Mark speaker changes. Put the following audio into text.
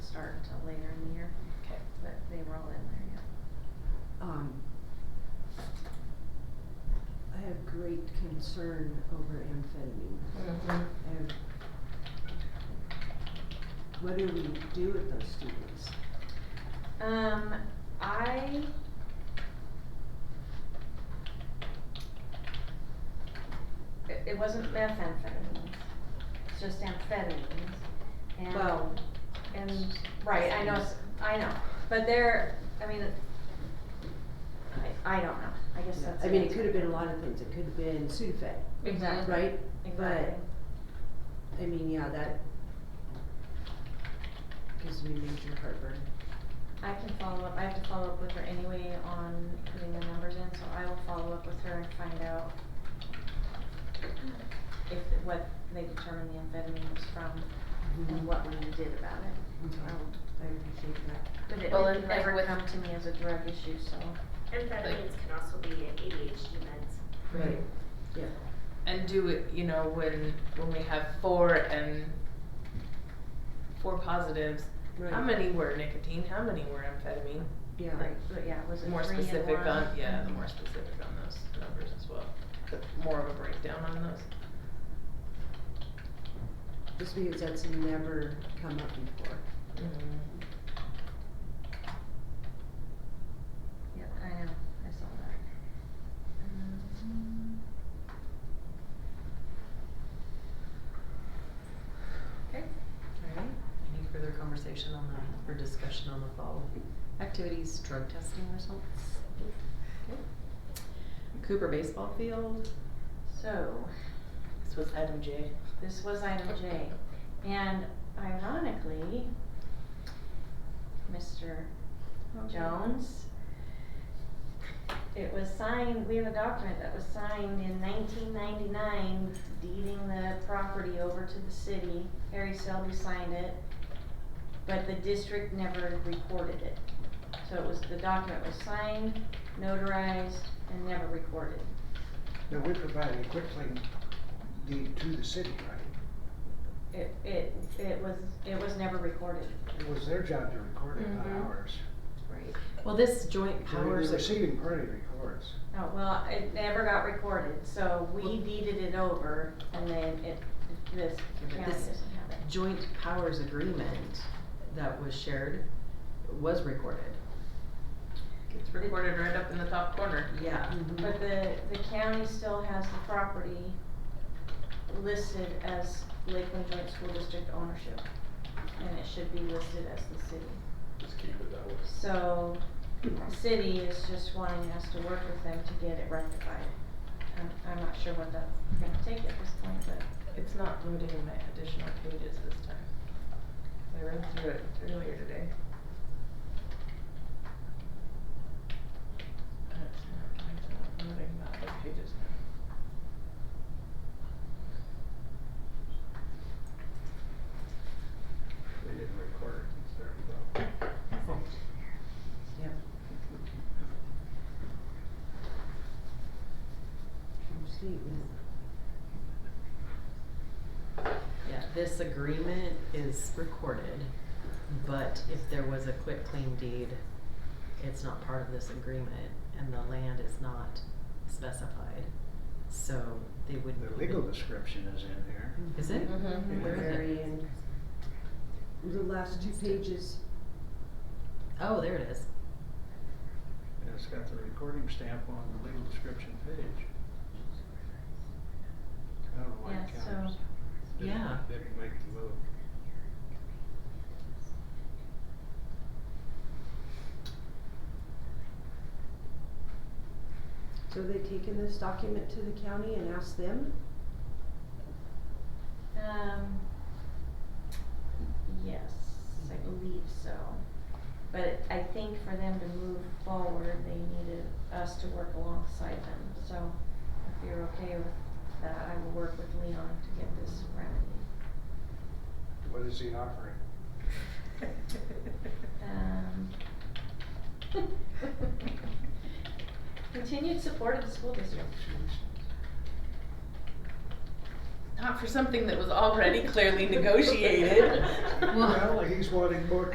Speaker 1: start until later in the year,
Speaker 2: Okay.
Speaker 1: but they were all in there, yeah.
Speaker 3: Um, I have great concern over amphetamine.
Speaker 2: Mm-hmm.
Speaker 3: I have- What do we do with those students?
Speaker 1: Um, I. It, it wasn't methamphetamines, it's just amphetamines, and.
Speaker 3: Well-
Speaker 1: And, right, I know, s- I know, but they're, I mean, I, I don't know, I guess that's.
Speaker 3: I mean, it could have been a lot of things, it could have been Sudafed,
Speaker 2: Exactly.
Speaker 3: right?
Speaker 1: Exactly.
Speaker 3: I mean, yeah, that gives me major heartburn.
Speaker 1: I can follow up, I have to follow up with her anyway on putting the numbers in, so I will follow up with her and find out if, what they determined the amphetamine was from
Speaker 3: Mm-hmm.
Speaker 2: Mm-hmm.
Speaker 1: and what we did about it.
Speaker 3: Okay, I appreciate that.
Speaker 1: But it
Speaker 2: Well, and
Speaker 1: didn't
Speaker 2: like
Speaker 1: ever
Speaker 2: with-
Speaker 1: come to me as a drug issue, so.
Speaker 4: Amphetamines can also be ADHD meds.
Speaker 3: Right, yeah.
Speaker 2: And do it, you know, when when we have four and four positives,
Speaker 3: Right.
Speaker 2: how many were nicotine? How many were amphetamine?
Speaker 3: Yeah.
Speaker 1: Right, but yeah, was it
Speaker 2: more
Speaker 1: three and
Speaker 2: specific
Speaker 1: one?
Speaker 2: on yeah, the more specific on those numbers as well. The more of a breakdown on those.
Speaker 3: Just because that's never come up before.
Speaker 1: Mm-hmm. Yeah, I know, I saw that. Um, Okay.
Speaker 5: Alright, any further conversation on the, or discussion on the fall activities, drug testing results? Cooper baseball field,
Speaker 1: So,
Speaker 2: This was item J.
Speaker 1: This was item J. And ironically, Mr. Jones, it was signed, we have a document that was signed in nineteen ninety-nine deeding the property over to the city. Harry Selby signed it, but the district never recorded it. So it was, the document was signed, notarized, and never recorded.
Speaker 6: Now, we provided a quick link deed to the city, right?
Speaker 1: It, it, it was, it was never recorded.
Speaker 6: It was their job to record it, not
Speaker 1: Mhm.
Speaker 6: ours.
Speaker 5: right, well, this joint
Speaker 6: The re-
Speaker 5: powers.
Speaker 6: The
Speaker 5: of-
Speaker 6: receiving party records.
Speaker 1: Oh, well, it never got recorded, so we deeded it over and then it, this
Speaker 5: but
Speaker 1: county
Speaker 5: this-
Speaker 1: doesn't have it.
Speaker 5: joint powers agreement that was shared was recorded.
Speaker 2: It's recorded right up in the top corner.
Speaker 5: Yeah,
Speaker 1: But the, the county still has the property listed as Lakeland Joint School District ownership. And it should be listed as the city.
Speaker 7: Just keep it that way.
Speaker 1: So, the city is just wanting us to work with them to get it rectified. I'm, I'm not sure what that's gonna take at this point, but.
Speaker 2: It's not loading my additional pages this time. I read through it earlier today. And it's not, it's not loading my other pages now.
Speaker 7: They didn't record it, it's their fault.
Speaker 3: Yep. True statement.
Speaker 5: yeah, this agreement is recorded, but if there was a quit claim deed, it's not part of this agreement and the land is not specified. So they wouldn't.
Speaker 6: The legal
Speaker 5: even-
Speaker 6: description is in here.
Speaker 5: Is it?
Speaker 2: Mhm.
Speaker 5: Where is
Speaker 3: Very
Speaker 5: it?
Speaker 3: end. The last two pages,
Speaker 5: Oh, there it is.
Speaker 6: And It's got the recording stamp on the legal description page. I don't know why
Speaker 1: Yeah,
Speaker 6: it counts.
Speaker 1: so-
Speaker 6: Didn't-
Speaker 5: Yeah.
Speaker 6: Didn't make the move.
Speaker 3: so they taken this document to the county and asked them?
Speaker 1: Um, yes, I believe so. But I think for them to move forward, they needed us to work alongside them, so if you're okay with that, I will work with Leon to get this remedy.
Speaker 6: What is he offering?
Speaker 1: Um. Continued support of the school district.
Speaker 2: Not for something that was already clearly negotiated.
Speaker 1: Well,
Speaker 6: Well, he's wanting more